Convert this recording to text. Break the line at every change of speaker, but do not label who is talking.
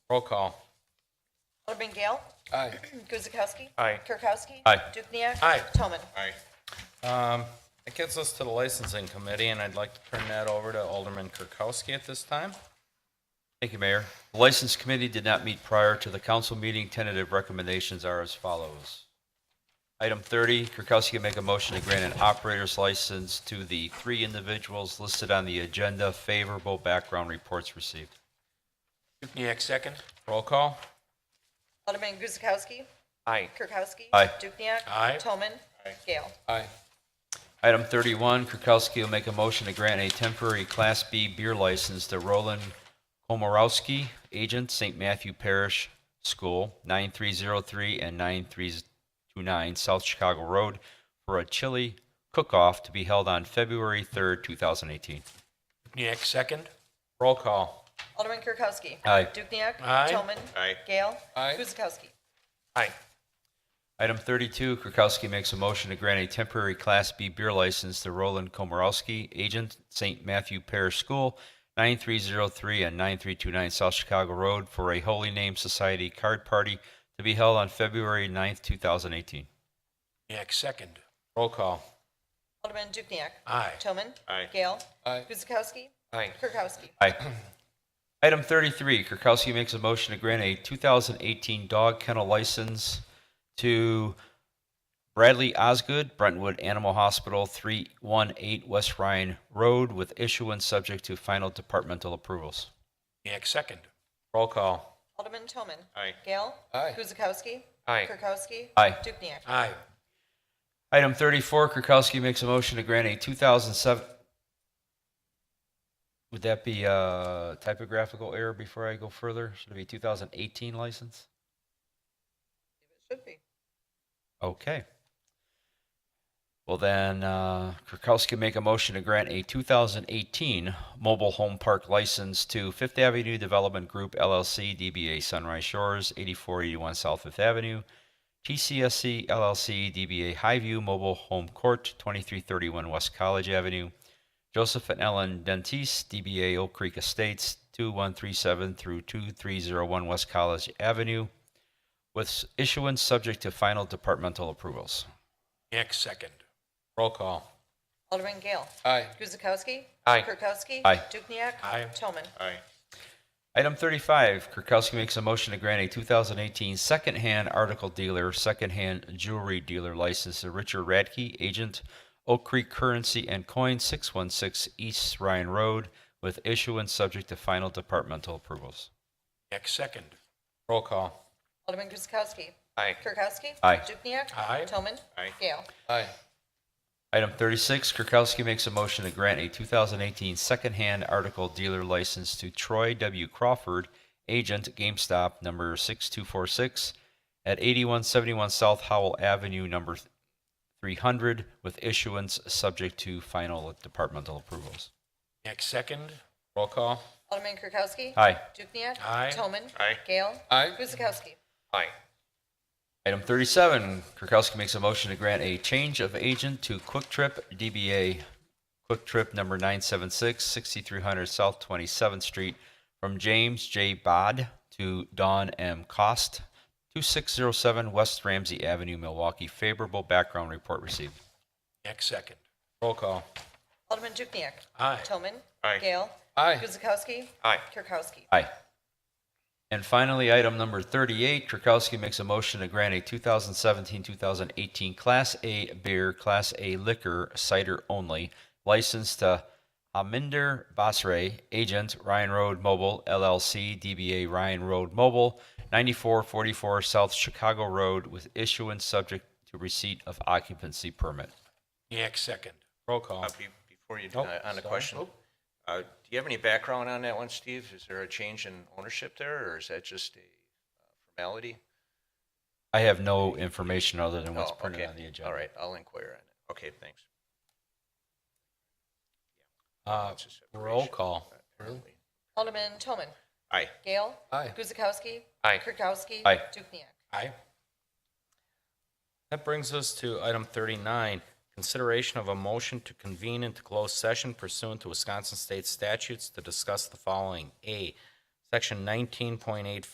Roll call.
Alderman Gale.
Aye.
Guzekowski.
Aye.
Kirkowski.
Aye.
Dukenyak.
Aye.
Toman.
Aye. Um, That gets us to the licensing committee, and I'd like to turn that over to Alderman Kirkowski at this time.
Thank you, Mayor. The License Committee did not meet prior to the council meeting. Tentative recommendations are as follows. Item 30, Kirkowski will make a motion to grant an operator's license to the three individuals listed on the agenda. Favorable background reports received.
Dukenyak, second.
Roll call.
Alderman Guzekowski.
Aye.
Kirkowski.
Aye.
Dukenyak.
Aye.
Toman. Gale.
Aye.
Item 31, Kirkowski will make a motion to grant a temporary Class B beer license to Roland Komorowski, agent, St. Matthew Parish School, 9303 and 9329 South Chicago Road, for a chili cook-off to be held on February 3rd, 2018.
Dukenyak, second.
Roll call.
Alderman Kirkowski.
Aye.
Dukenyak.
Aye.
Toman.
Aye.
Gale.
Aye.
Guzekowski.
Aye.
Item 32, Kirkowski makes a motion to grant a temporary Class B beer license to Roland Komorowski, agent, St. Matthew Parish School, 9303 and 9329 South Chicago Road, for a Holy Name Society card party to be held on February 9th, 2018.
Dukenyak, second.
Roll call.
Alderman Dukenyak.
Aye.
Toman.
Aye.
Gale.
Aye.
Guzekowski.
Aye.
Kirkowski.
Aye. Item 33, Kirkowski makes a motion to grant a 2018 dog kennel license to Bradley Osgood, Brentwood Animal Hospital, 318 West Ryan Road, with issuance subject to final departmental approvals.
Dukenyak, second.
Roll call.
Alderman Toman.
Aye.
Gale.
Aye.
Guzekowski.
Aye.
Kirkowski.
Aye.
Dukenyak.
Aye.
Item 34, Kirkowski makes a motion to grant a 2007, would that be a typographical error before I go further? Should it be 2018 license?
Should be.
Okay. Well, then, uh, Kirkowski make a motion to grant a 2018 mobile home park license to Fifth Avenue Development Group LLC, DBA Sunrise Shores, 8481 South Fifth Avenue, TCSC LLC, DBA Highview Mobile Home Court, 2331 West College Avenue, Joseph and Ellen Dentiste, DBA Oak Creek Estates, 2137 through 2301 West College Avenue, with s- issuance subject to final departmental approvals.
Dukenyak, second.
Roll call.
Alderman Gale.
Aye.
Guzekowski.
Aye.
Kirkowski.
Aye.
Dukenyak.
Aye.
Toman.
Aye.
Item 35, Kirkowski makes a motion to grant a 2018 secondhand article dealer, secondhand jewelry dealer license to Richard Radke, agent, Oak Creek Currency and Coin, 616 East Ryan Road, with issuance subject to final departmental approvals.
Dukenyak, second.
Roll call.
Alderman Guzekowski.
Aye.
Kirkowski.
Aye.
Dukenyak.
Aye.
Toman.
Aye.
Gale.
Aye.
Item 36, Kirkowski makes a motion to grant a 2018 secondhand article dealer license to Troy W. Crawford, agent GameStop, number 6246, at 8171 South Howell Avenue, number 300, with issuance subject to final departmental approvals.
Dukenyak, second.
Roll call.
Alderman Kirkowski.
Aye.
Dukenyak.
Aye.
Toman.
Aye.
Gale.
Aye.
Guzekowski.
Aye.
Item 37, Kirkowski makes a motion to grant a change of agent to Quick Trip DBA Quick Trip number 976, 6300 South 27th Street from James J. Bod to Don M. Cost, 2607 West Ramsey Avenue, Milwaukee. Favorable background report received.
Dukenyak, second.
Roll call.
Alderman Dukniak.
Aye.
Toman.
Aye.
Gale.
Aye.
Guzekowski.
Aye.
Kirkowski.
Aye. And finally, item number 38, Kirkowski makes a motion to grant a 2017-2018 Class A beer, Class A liquor, cider only license to Aminder Basre, agent, Ryan Road Mobile LLC, DBA Ryan Road Mobile, 9444 South Chicago Road, with issuance subject to receipt of occupancy permit.
Dukenyak, second.
Roll call.
Uh, be- Before you,
Nope,
uh, on the
sorry.
question,
Nope.
uh, do you have any background on that one, Steve? Is there a change in ownership there, or is that just a uh, formality?
I have no information other than what's
Oh,
printed
okay.
on the agenda.
All right, I'll inquire on it. Okay, thanks.
Uh,
It's a separation,
roll call.
apparently.
Alderman Toman.
Aye.
Gale.
Aye.
Guzekowski.
Aye.
Kirkowski.
Aye.
Dukniak.
Aye.
That brings us to item 39, consideration of a motion to convene into closed session pursuant to Wisconsin State statutes to discuss the following. A, Section 19.8